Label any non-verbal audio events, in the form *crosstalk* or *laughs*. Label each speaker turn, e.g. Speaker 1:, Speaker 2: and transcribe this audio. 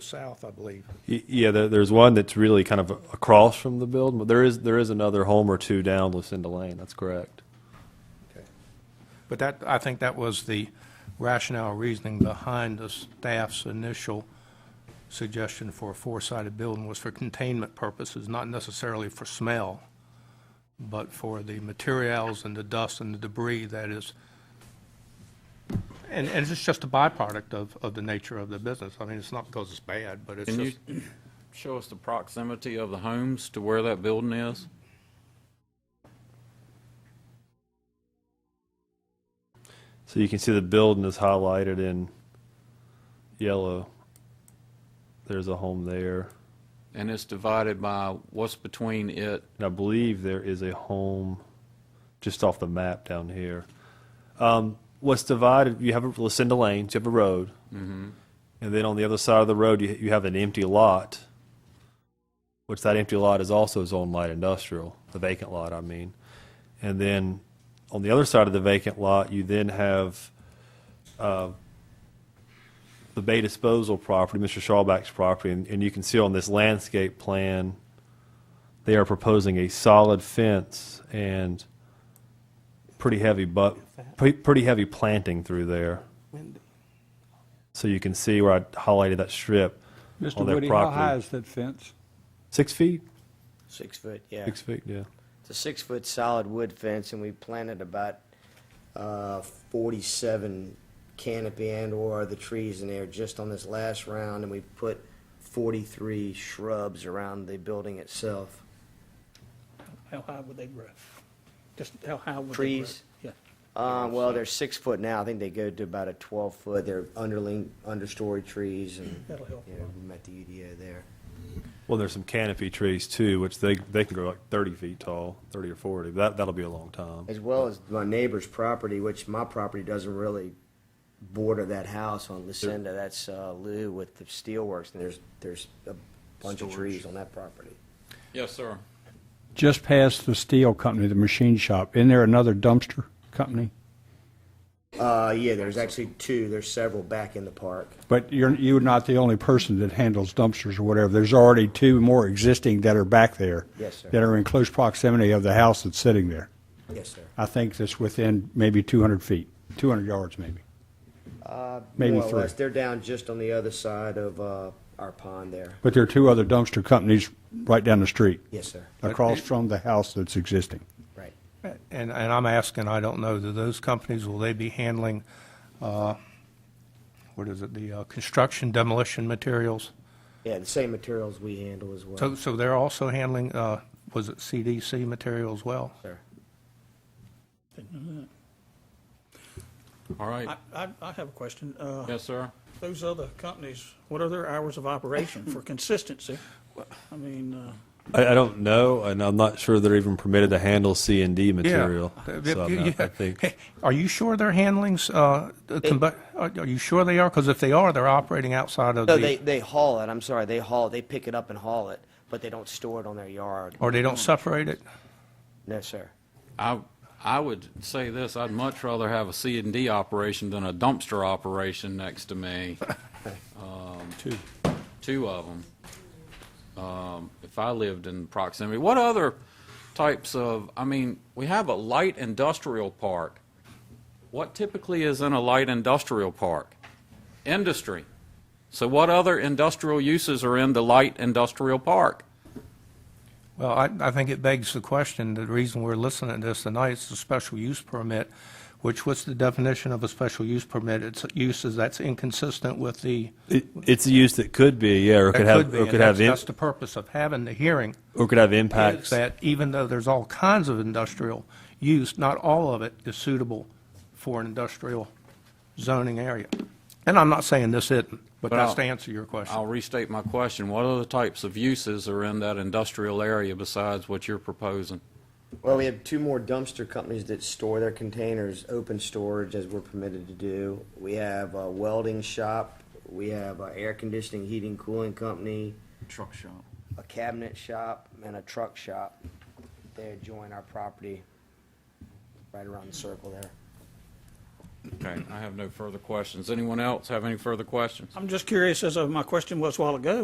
Speaker 1: south, I believe.
Speaker 2: Y- Yeah, there, there's one that's really kind of across from the building, but there is, there is another home or two down Lucinda Lane, that's correct.
Speaker 1: Okay. But that, I think that was the rationale reasoning behind the staff's initial suggestion for a four-sided building was for containment purposes, not necessarily for smell, but for the materials and the dust and the debris that is, and, and it's just a byproduct of, of the nature of the business. I mean, it's not because it's bad, but it's
Speaker 3: Can you
Speaker 1: just,
Speaker 3: *clears throat* show us the proximity of the homes to where that building is?
Speaker 2: So you can see the building is highlighted in yellow. There's a home there.
Speaker 3: And it's divided by what's between it,
Speaker 2: And I believe there is a home just off the map down here. Um, what's divided, you have a Lucinda Lane, so you have a road. Mm-hmm. And then on the other side of the road, you, you have an empty lot, which that empty lot is also zone light industrial, the vacant lot, I mean. And then on the other side of the vacant lot, you then have uh, the Bay Disposal property, Mr. Shawback's property. And, and you can see on this landscape plan, they are proposing a solid fence and pretty heavy but pre- pretty heavy planting through there. So you can see where I highlighted that strip
Speaker 4: Mr.
Speaker 2: on their
Speaker 4: Woody, how
Speaker 2: property.
Speaker 4: high is that fence?
Speaker 2: Six feet.
Speaker 5: Six foot, yeah.
Speaker 2: Six feet. Yeah.
Speaker 5: It's a six-foot solid wood fence, and we planted about uh, 47 canopy and/or the trees in there just on this last round, and we put 43 shrubs around the building itself.
Speaker 6: How high would they grow? Just how high would they grow?
Speaker 5: Trees?
Speaker 6: Yeah.
Speaker 5: Uh, Well, they're six foot now. I think they go to about a 12-foot. They're underling, understory trees, and,
Speaker 6: That'll help.
Speaker 5: you know, we met the UDO there.
Speaker 2: Well, there's some canopy trees too, which they they can grow like 30 feet tall, 30 or 40. That that'll be a long time.
Speaker 5: As well as my neighbor's property, which my property doesn't really border that house on Lucinda, that's uh, Lou with the steelworks, and there's, there's a bunch of trees on that property.
Speaker 3: Yes, sir.
Speaker 4: Just past the steel company, the machine shop, isn't there another dumpster company?
Speaker 5: Uh, yeah, there's actually two, there's several back in the park.
Speaker 4: But you're, you're not the only person that handles dumpsters or whatever. There's already two more existing that are back there.
Speaker 5: Yes, sir.
Speaker 4: That are in close proximity of the house that's sitting there.
Speaker 5: Yes, sir.
Speaker 4: I think that's within maybe 200 feet, 200 yards maybe.
Speaker 5: Uh,
Speaker 4: Maybe
Speaker 5: More or
Speaker 4: three.
Speaker 5: less, They're down just on the other side of uh, our pond there.
Speaker 4: But there are two other dumpster companies right down the street.
Speaker 5: Yes, sir.
Speaker 4: Across from the house that's existing.
Speaker 5: Right.
Speaker 1: and, and I'm asking, I don't know, do those companies, will they be handling, uh, what is it, the uh, construction demolition materials?
Speaker 5: Yeah, the same materials we handle as
Speaker 1: So,
Speaker 5: well.
Speaker 1: so they're also handling, uh, was it CDC material as well?
Speaker 5: Sir.
Speaker 3: All right.
Speaker 6: I, I, I have a question. Uh,
Speaker 3: Yes, sir.
Speaker 6: Those other companies, what are their hours of operation for consistency? I mean, uh,
Speaker 2: I, I don't know, and I'm not sure they're even permitted to handle C and D
Speaker 1: Yeah. *laughs*
Speaker 2: material.
Speaker 1: Uh,
Speaker 2: So I'm
Speaker 1: yeah.
Speaker 2: not- I think
Speaker 1: Are you sure they're handling, uh, the combu- are are you sure they are? Because if they are, they're operating outside of
Speaker 5: No, they,
Speaker 1: the,
Speaker 5: they haul it, I'm sorry, they haul, they pick it up and haul it, but they don't store it on their yard.
Speaker 1: or they don't separate it?
Speaker 5: No, sir.
Speaker 3: I, I would say this, I'd much rather have a C and D operation than a dumpster operation next to me. Two. Two of them. Um, if I lived in proximity. What other types of, I mean, we have a light industrial park. What typically is in a light industrial park? Industry. So what other industrial uses are in the light industrial park?
Speaker 1: Well, I, I think it begs the question, the reason we're listening to this tonight is the special use permit, which what's the definition of a special use permit? It's uses that's inconsistent with the,
Speaker 2: it, it's a use that could be, yeah, or
Speaker 1: that
Speaker 2: could have,
Speaker 1: could be.
Speaker 2: or
Speaker 1: and
Speaker 2: could
Speaker 1: that's-
Speaker 2: have, im-
Speaker 1: That's the purpose of having the hearing.
Speaker 2: or could have
Speaker 1: is
Speaker 2: impacts.
Speaker 1: that even though there's all kinds of industrial use, not all of it is suitable for an industrial zoning area. And I'm not saying this isn't, but
Speaker 3: But
Speaker 1: that's
Speaker 3: I'll-
Speaker 1: to answer your question.
Speaker 3: I'll restate my question. What other types of uses are in that industrial area besides what you're proposing?
Speaker 5: Well, we have two more dumpster companies that store their containers, open storage as we're permitted to do. We have a welding shop, we have a air conditioning, heating, cooling company,
Speaker 3: Truck shop.
Speaker 5: a cabinet shop, and a truck shop. They adjoin our property right around the circle there.
Speaker 3: Okay, I have no further questions. Anyone else have any further questions?
Speaker 6: I'm just curious, as of my question was a while ago,